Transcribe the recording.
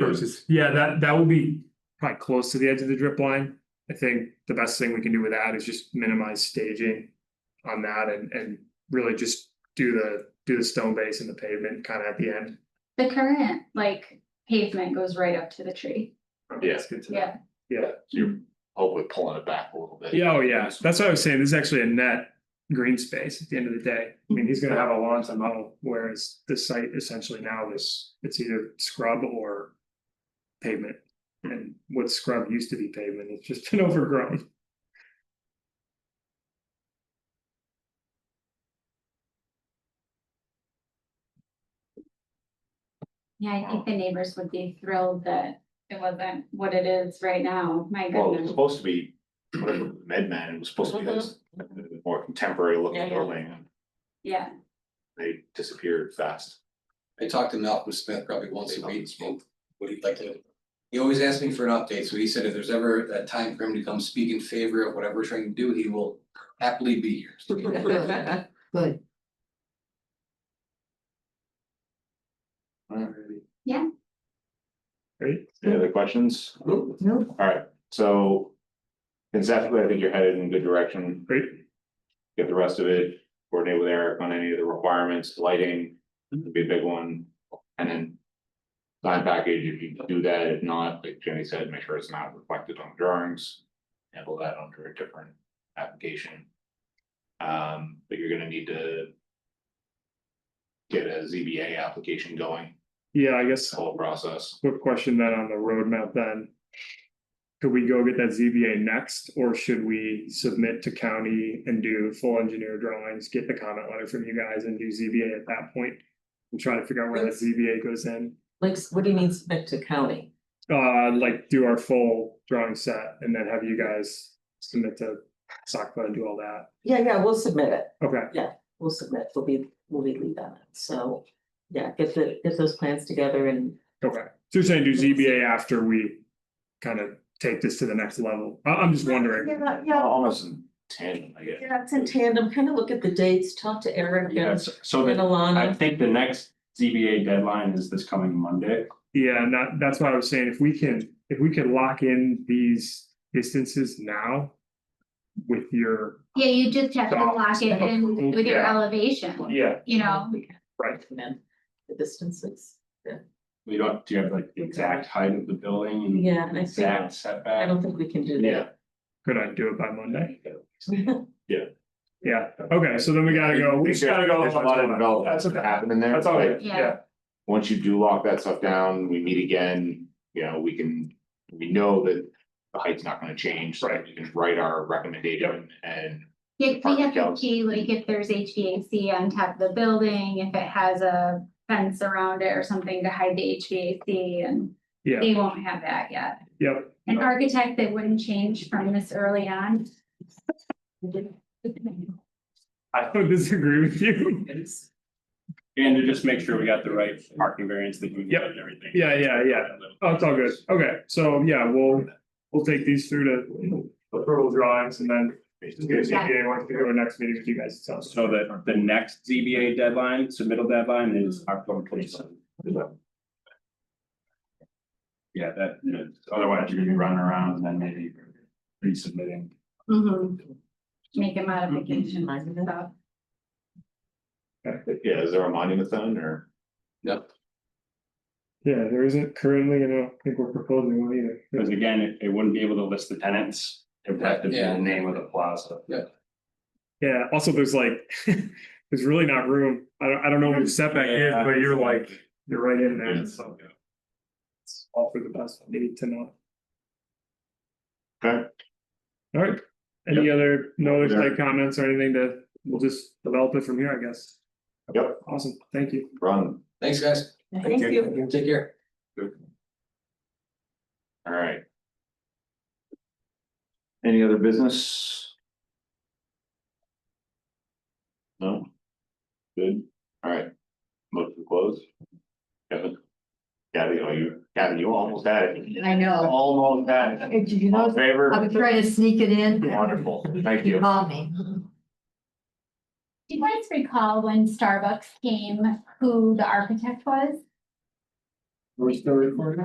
versus, Yeah, that, that will be probably close to the edge of the drip line. I think the best thing we can do with that is just minimize staging on that and, and really just do the, do the stone base and the pavement kind of at the end. The current, like pavement goes right up to the tree, Yeah. That's good to know. yeah, You're hopefully pulling it back a little bit. Yeah, oh yeah, that's what I was saying, this is actually a net green space at the end of the day. I mean, he's gonna have a lawn to mow, whereas the site essentially now is, it's either scrub or pavement. And what scrub used to be pavement, it's just been overgrown. yeah, I think the neighbors would be thrilled that it wasn't what it is right now, my Well, it was goodness. supposed to be, whatever, Med Man, it was supposed to be this more contemporary Mm-hmm. Yeah, looking yeah. building, and Yeah, they disappeared fast. I talk to Malcolm Smith probably once a Malcolm week, Smith. what he'd like to. He always asks me for an update, so he said if there's ever that time for him to come speak in favor of whatever we're trying to do, he will happily be here. Good. Right? Any other questions? No, Alright, so. Conceptually, I think you're headed in a good direction, Great, get the rest of it, coordinate with Eric on any of the requirements, lighting, would be a big one, and then. Sign package, if you do that, if not, like Jenny said, make sure it's not reflected on drawings, handle that under a different application. Um, but you're gonna need to. Get a ZBA application going, yeah, I guess this whole process, Quick question then on the roadmap then. Could we go get that ZBA next, or should we submit to county and do full engineer drawings, get the comment letter from you guys and do ZBA at that point? And try to figure out where that ZBA goes in, like, what do you mean submit to county? uh, like do our full drawing set and then have you guys submit to SACPA and do all that. Yeah, yeah, we'll submit it, Okay, we'll submit, we'll be, we'll be lead on it, so, yeah, get the, get those plans together and. okay. So you're saying do ZBA after we kind of take this to the next level? I, I'm just wondering. Yeah, yeah, almost in tandem, I guess. yeah, it's in tandem, kind of look at the dates, talk to Eric Yeah, and so- so and that, I Alana, think the next ZBA deadline is this coming Monday. Yeah, and that, that's why I was saying, if we can, if we can lock in these distances now. With your, yeah, you just have to Stop. lock it in with your Yeah. elevation, yeah, you know, we can right, recommend the distances. We don't, do you have like the exact height of the building and Yeah, and I think, exact I setback? don't think we can do that. could I do it by Monday? Yeah. Yeah, okay, so then we gotta go, we just gotta go. There's a lot of development That's that's okay, happening there. that's all like, right, Yeah. yeah, once you do lock that stuff down, we meet again, you know, we can, we know that the height's not gonna change. so Right. We can write our recommendation and Yeah, 'cause we have to Apartment see like if there's HVAC on top of the building, if it has a fence around it or something to hide the HVAC and yeah, they won't have that yet. yep, An architect that wouldn't change from this early on. I don't disagree with you. And to just make sure we got the right parking variance that we need Yep. and everything. Yeah, yeah, yeah. Oh, it's all good, okay, so yeah, we'll, we'll take these through to approval drawings and then. Just get a ZBA, once we go to next meeting with you guys, so. So that the next ZBA deadline, submittal deadline is October twenty seventh. Yeah, that, you know, otherwise you're gonna be running around and then maybe resubmitting. Mm-hmm. Make a modification Mind it? stuff. yeah, is there a monument then or? Yeah, there isn't currently, and I don't think we're proposing one either. Because again, it, it wouldn't be able to list the tenants. It would have to be the Yeah. name of the plaza. Yeah, also there's like, there's really not room. I don't, I don't know what the setback is, Yeah. but you're like, you're right in Yeah. there, so. It's all for the best, maybe to know. Okay. All right, any other, no other site comments or anything to, we'll just develop it from here, I guess. Yep. Awesome, thank you. Run. Thanks, guys. Thank you. Take care. All right. Any other business? No? Good, all right. Motion closed. Kevin? Kathy, oh, you, Kathy, you almost had it. I know. Almost had it. Did you All in know, favor? I was trying to sneak it in. Wonderful, thank you. Call me. Do you guys recall when Starbucks came, who the architect was? We're still recording?